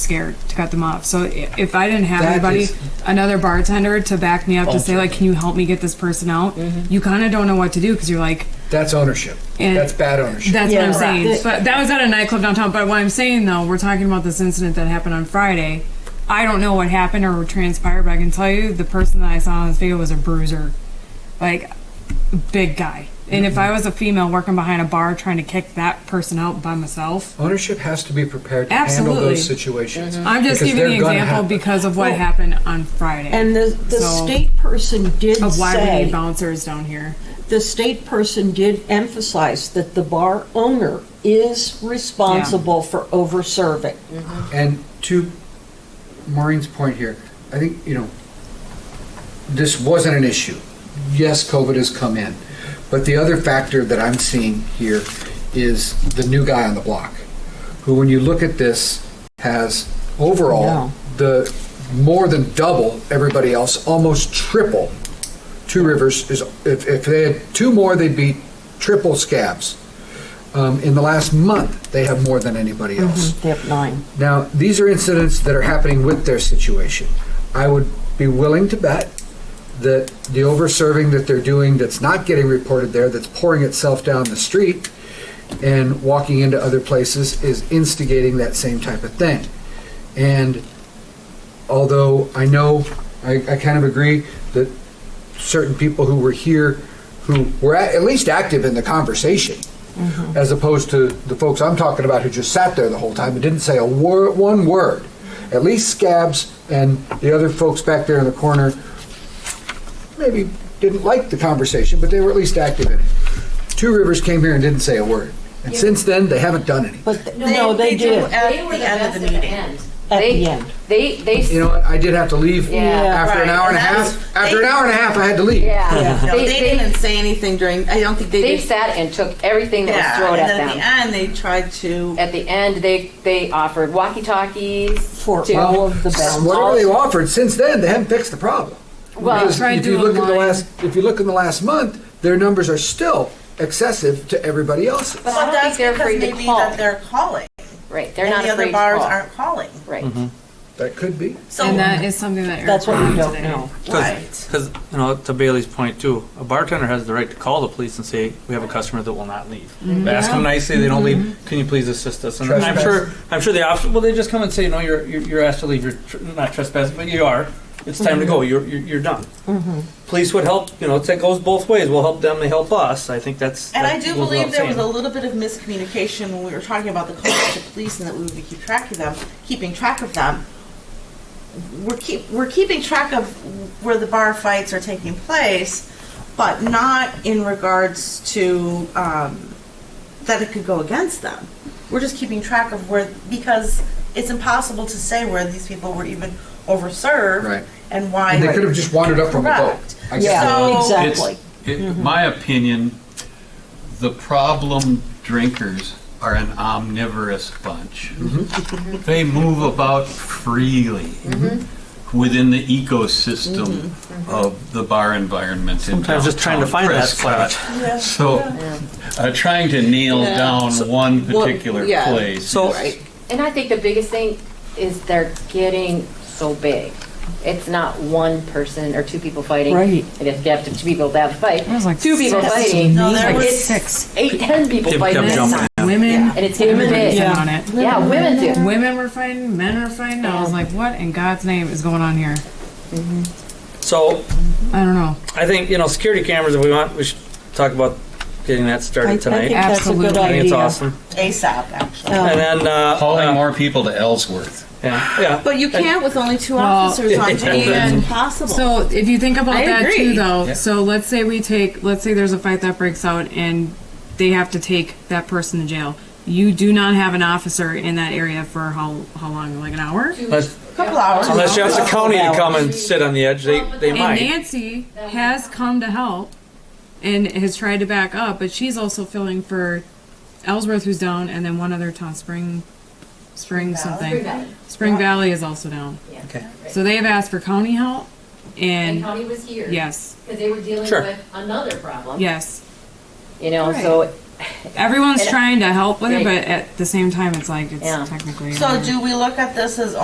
scared to cut them off. So i- if I didn't have That anybody, is- another bartender to back me up to say like, Ultimately. "Can you help me get this person out?" Mm-hmm. You kind of don't know what to do because you're like, That's ownership. And- That's bad ownership. That's Yeah. what I'm saying. Right. But that was at a nightclub downtown. But what I'm saying though, we're talking about this incident that happened on Friday. I don't know what happened or what transpired, but I can tell you the person that I saw on this video was a bruiser, like big guy. And if I was a female working behind a bar trying to kick that person out by myself, ownership has to be prepared to handle Absolutely. those situations. I'm just Mm-hmm. Because giving the they're gonna example happen. because of what Well, happened on Friday And the, the So- state person did of why we need say, bouncers down here. the state person did emphasize that the bar owner is responsible for over-serving. And to Maureen's point here, I think, you know, this wasn't an issue. Yes, COVID has come in. But the other factor that I'm seeing here is the new guy on the block, who, when you look at this, has overall No. the more than double everybody else, almost triple. Two Rivers is, if, if they had two more, they'd be triple scabs. Um, in the last month, they have more than anybody else. They have nine. Now, these are incidents that are happening with their situation. I would be willing to bet that the over-serving that they're doing that's not getting reported there, that's pouring itself down the street and walking into other places, is instigating that same type of thing. And although I know, I, I kind of agree that certain people who were here, who were at, at least active in the conversation, as opposed to the folks I'm talking about who just sat there the whole time and didn't say a word, one word. At least Scabs and the other folks back there in the corner maybe didn't like the conversation, but they were at least active in it. Two Rivers came here and didn't say a word. And since then, they haven't done any. But, th- no, they did, At They were the end of the best at meeting. end. at They- the end. They, they, You know, what? I did have to leave Yeah. after an Right, hour and a and that was- half. After an they- hour and a half, I had to leave. yeah. No, They, they, they, didn't say anything during. I don't think they they did. sat and took everything that was thrown and then at at them. the end, they tried to. At the end, they, they offered walkie-talkies. For to- all of the Well, bounds. Whatever they've offered since then, they haven't fixed the problem. Well, Because Tried if you doing look in the mine. last, if you look in the last month, their numbers are still excessive to everybody else's. But I don't think that's they're because afraid to maybe call. that they're calling, Right, they're and not the afraid other to bars call. aren't calling. Right. Mm-hmm. That could be. So And that is something that Eric That's what we brought don't today. know. right. Because, you know, to Bailey's point too, a bartender has the right to call the police and say, we have a customer that will not leave. Mm-hmm. Ask them nicely, they don't leave, can you please assist us? And I'm Trespass. sure, I'm sure the officer, well, they just come and say, no, you're, you're you're asked to leave, you're tr- not trespassing, but you are. It's time Mm-hmm. to go, you're, you're you're done. Police would help, you know, it's- it goes both ways. We'll help them, they help us. I think that's. And I that do goes believe without there was a saying. little bit of miscommunication when we were talking about the calls to police and that we would be keep track of them, keeping track of them. We're keep we're keeping track of where the bar fights are taking place, but not in regards to um, that it could go against them. We're just keeping track of where because it's impossible to say where these people were even overserved Right. and why And they could have just wandered up from the boat. Correct. I guess Yeah, So- exactly. It's, it, My opinion, the problem drinkers are an omnivorous bunch. They move about freely within the ecosystem of the bar environment. in Sometimes just trying to downtown find that Prescott. spot. So, uh, trying to nail Yeah. down one well, particular yeah. place. So- is- And I think the biggest thing is they're getting so big. It's not one person or two people fighting. Right. And if you have to- two people that have to fight, It was like two people six. fighting, No, there like was it's six. eight, ten people Kept fighting. jumping. Women, And it's getting women big. yeah. on it. Yeah, women do. Women were fighting, men were fighting. I was Yeah. like, what in God's name is going on here? So, I don't know. I think, you know, security cameras, if we want, we should talk about getting that I I started think tonight. that's a good Absolutely. I think it's idea. awesome. ASAP actually. And then, uh. Calling uh, more people to Ellsworth. Yeah, yeah. But you can't with only two officers on duty. It's impossible. So if you think about I that too, agree. though, Yeah. so let's say we take, let's say there's a fight that breaks out and they have to take that person to jail. You do not have an officer in that area for how how long? Like an hour? Unless, a couple hours. unless you ask the county to come and sit on the edge, they, they And might. Nancy has come to help and has tried to back up, but she's also filling for Ellsworth, who's down, and then one other town, Spring, Spring something. Spring Valley is also down. Okay. So they have asked for county help, And and county was here. yes, Because they were dealing Sure. with another problem. yes, You know, so, everyone's And- trying to help with it, Right. but at the same time, it's like it's Yeah. technically. So another- do we look at this as